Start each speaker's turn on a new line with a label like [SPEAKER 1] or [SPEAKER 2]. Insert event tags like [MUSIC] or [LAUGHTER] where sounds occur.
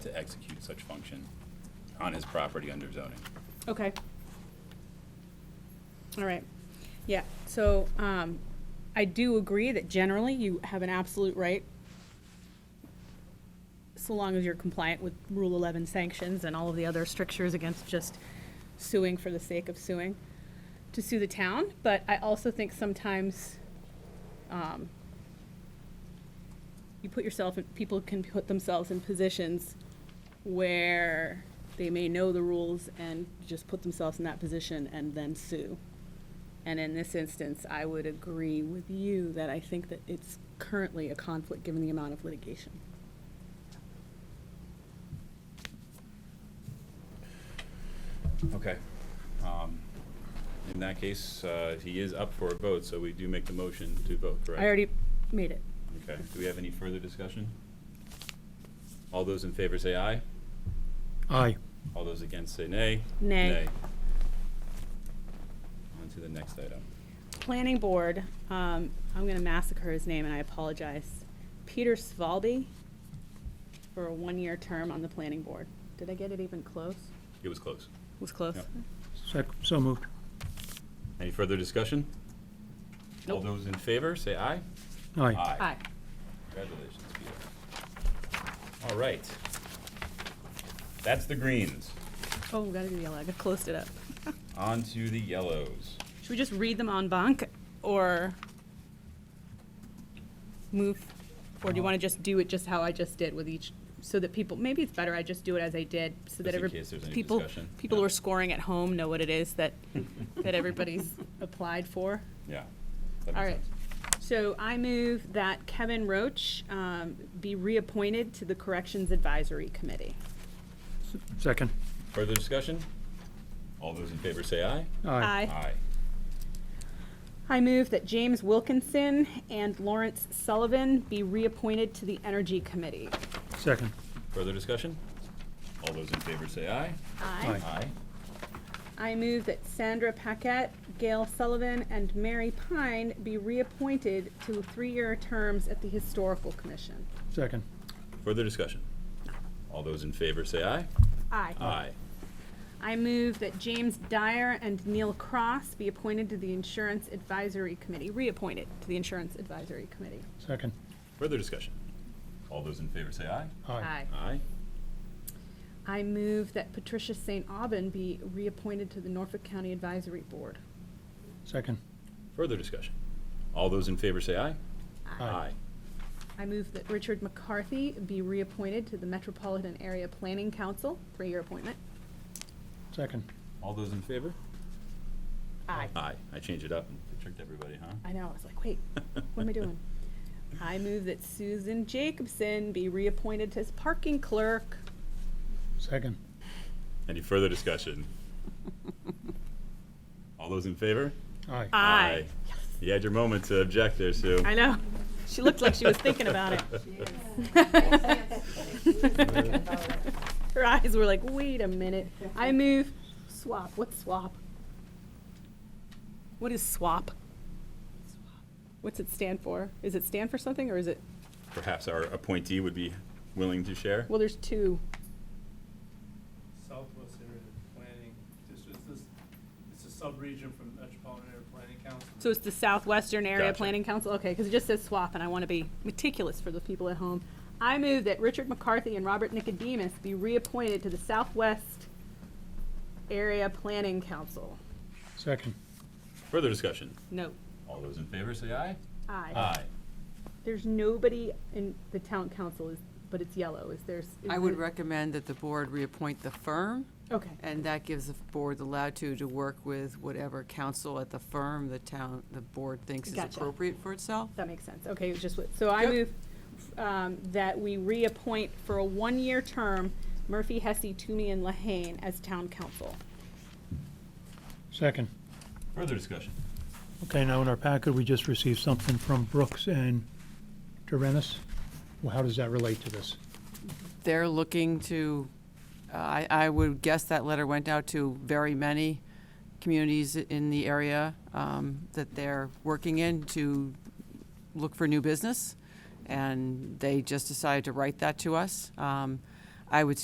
[SPEAKER 1] execute such function on his property under zoning.
[SPEAKER 2] Okay. All right. Yeah, so, um, I do agree that generally you have an absolute right, so long as you're compliant with Rule 11 sanctions and all of the other strictures against just suing for the sake of suing, to sue the town. But I also think sometimes, um, you put yourself, in people can put themselves in positions where they may know the rules and just put themselves in that position and then sue. And in this instance, I would agree with you that I think that it's currently a conflict given the amount of litigation.
[SPEAKER 1] Okay. Um, In that case, uh, he is up for a vote, so we do make the motion to vote, correct?
[SPEAKER 2] I already made it.
[SPEAKER 1] Okay, do we have any further discussion? All those in favor say aye.
[SPEAKER 3] Aye.
[SPEAKER 1] All those against say nay.
[SPEAKER 2] Nay.
[SPEAKER 1] On to the next item.
[SPEAKER 2] Planning Board, um, I'm gonna massacre his name and I apologize. Peter Svalby for a one-year term on the Planning Board. Did I get it even close?
[SPEAKER 1] It was close.
[SPEAKER 2] Was close?
[SPEAKER 1] Yep.
[SPEAKER 3] Sec, so moved.
[SPEAKER 1] Any further discussion? All
[SPEAKER 2] Nope.
[SPEAKER 1] those in favor, say aye.
[SPEAKER 3] Aye.
[SPEAKER 2] Aye.
[SPEAKER 1] Congratulations, Peter. All right. That's the greens.
[SPEAKER 2] Oh, we gotta do yellow. I got closed it up.
[SPEAKER 1] On to the yellows.
[SPEAKER 2] Should we just read them en banc or move, or do
[SPEAKER 1] Uh-huh.
[SPEAKER 2] you want to just do it just how I just did with each, so that people, maybe it's better I just do it as I did, so that
[SPEAKER 1] Just in
[SPEAKER 2] every,
[SPEAKER 1] case there's any
[SPEAKER 2] people,
[SPEAKER 1] discussion.
[SPEAKER 2] people
[SPEAKER 1] Yeah.
[SPEAKER 2] who are scoring at home know what it
[SPEAKER 1] [LAUGHS]
[SPEAKER 2] is that, that everybody's applied for.
[SPEAKER 1] Yeah. that
[SPEAKER 2] All
[SPEAKER 1] makes
[SPEAKER 2] right.
[SPEAKER 1] sense.
[SPEAKER 2] So I move that Kevin Roach um, be reappointed to the Corrections Advisory Committee.
[SPEAKER 3] Second.
[SPEAKER 1] Further discussion? All those in favor, say aye.
[SPEAKER 3] Aye.
[SPEAKER 1] Aye.
[SPEAKER 2] I move that James Wilkinson and Lawrence Sullivan be reappointed to the Energy Committee.
[SPEAKER 3] Second.
[SPEAKER 1] Further discussion? All those in favor, say aye.
[SPEAKER 2] Aye.
[SPEAKER 3] Aye.
[SPEAKER 1] Aye.
[SPEAKER 2] I move that Sandra Paquette, Gail Sullivan, and Mary Pine be reappointed to three-year terms at the Historical Commission.
[SPEAKER 3] Second.
[SPEAKER 1] Further discussion? All those in favor, say aye.
[SPEAKER 2] Aye.
[SPEAKER 1] Aye.
[SPEAKER 2] I move that James Dyer and Neil Cross be appointed to the Insurance Advisory Committee, reappointed to the Insurance Advisory Committee.
[SPEAKER 3] Second.
[SPEAKER 1] Further discussion? All those in favor, say aye.
[SPEAKER 3] Aye.
[SPEAKER 1] Aye.
[SPEAKER 2] I move that Patricia St. Aubin be reappointed to the Norfolk County Advisory Board.
[SPEAKER 3] Second.
[SPEAKER 1] Further discussion? All those in favor, say aye. Aye.
[SPEAKER 2] I move that Richard McCarthy be reappointed to the Metropolitan Area Planning Council, three-year appointment.
[SPEAKER 3] Second.
[SPEAKER 1] All those in favor?
[SPEAKER 2] Aye.
[SPEAKER 1] Aye. I changed it up and tricked everybody, huh?
[SPEAKER 2] I know, I was like, wait, what am I doing? I move that Susan Jacobson be reappointed as parking clerk.
[SPEAKER 3] Second.
[SPEAKER 1] [LAUGHS] Any further
[SPEAKER 2] [LAUGHS]
[SPEAKER 1] discussion? All those in favor?
[SPEAKER 3] Aye.
[SPEAKER 1] Aye. You had your moment to object there, Sue.
[SPEAKER 2] I know. She looked like she was thinking
[SPEAKER 1] [LAUGHS]
[SPEAKER 2] about it. Her eyes were like, wait a minute. I move, swap, what's swap? What is swap? What's it stand for? Is it stand for something or is it,
[SPEAKER 1] Perhaps our appointee would be willing to share?
[SPEAKER 2] well, there's two.
[SPEAKER 4] Southwest area planning district, this, it's a sub-region from Metropolitan Area Planning Council.
[SPEAKER 2] So it's the Southwestern Area
[SPEAKER 1] Gotcha.
[SPEAKER 2] Planning Council? Okay, because it just says swap, and I want to be meticulous for the people at home. I move that Richard McCarthy and Robert Nicodemus be reappointed to the Southwest Area Planning Council.
[SPEAKER 3] Second.
[SPEAKER 1] Further discussion?
[SPEAKER 2] No,
[SPEAKER 1] All those in favor, say aye.
[SPEAKER 2] aye.
[SPEAKER 1] Aye.
[SPEAKER 2] There's nobody in the town council, is but it's yellow, is there's?
[SPEAKER 5] I would
[SPEAKER 2] Mm-hmm.
[SPEAKER 5] recommend that the board reappoint the firm,
[SPEAKER 2] Okay,
[SPEAKER 5] and that gives the board the latitude to work with whatever counsel at the firm the town, the board thinks is
[SPEAKER 2] Gotcha.
[SPEAKER 5] appropriate for itself.
[SPEAKER 2] that makes sense. Okay, it was just, what- so I
[SPEAKER 5] Yep.
[SPEAKER 2] move um, that we reappoint for a one-year term Murphy, Hesse, Toomey, and Lahane as town council.
[SPEAKER 3] Second.
[SPEAKER 1] Further discussion?
[SPEAKER 3] Okay, now in our packet, we just received something from Brooks and Durenis. Well, how does that relate to this?
[SPEAKER 5] They're looking to, uh, I, I would guess that letter went out to very many communities in the area um, that they're working in to look for new business, and they just decided to write that to us. Um, I would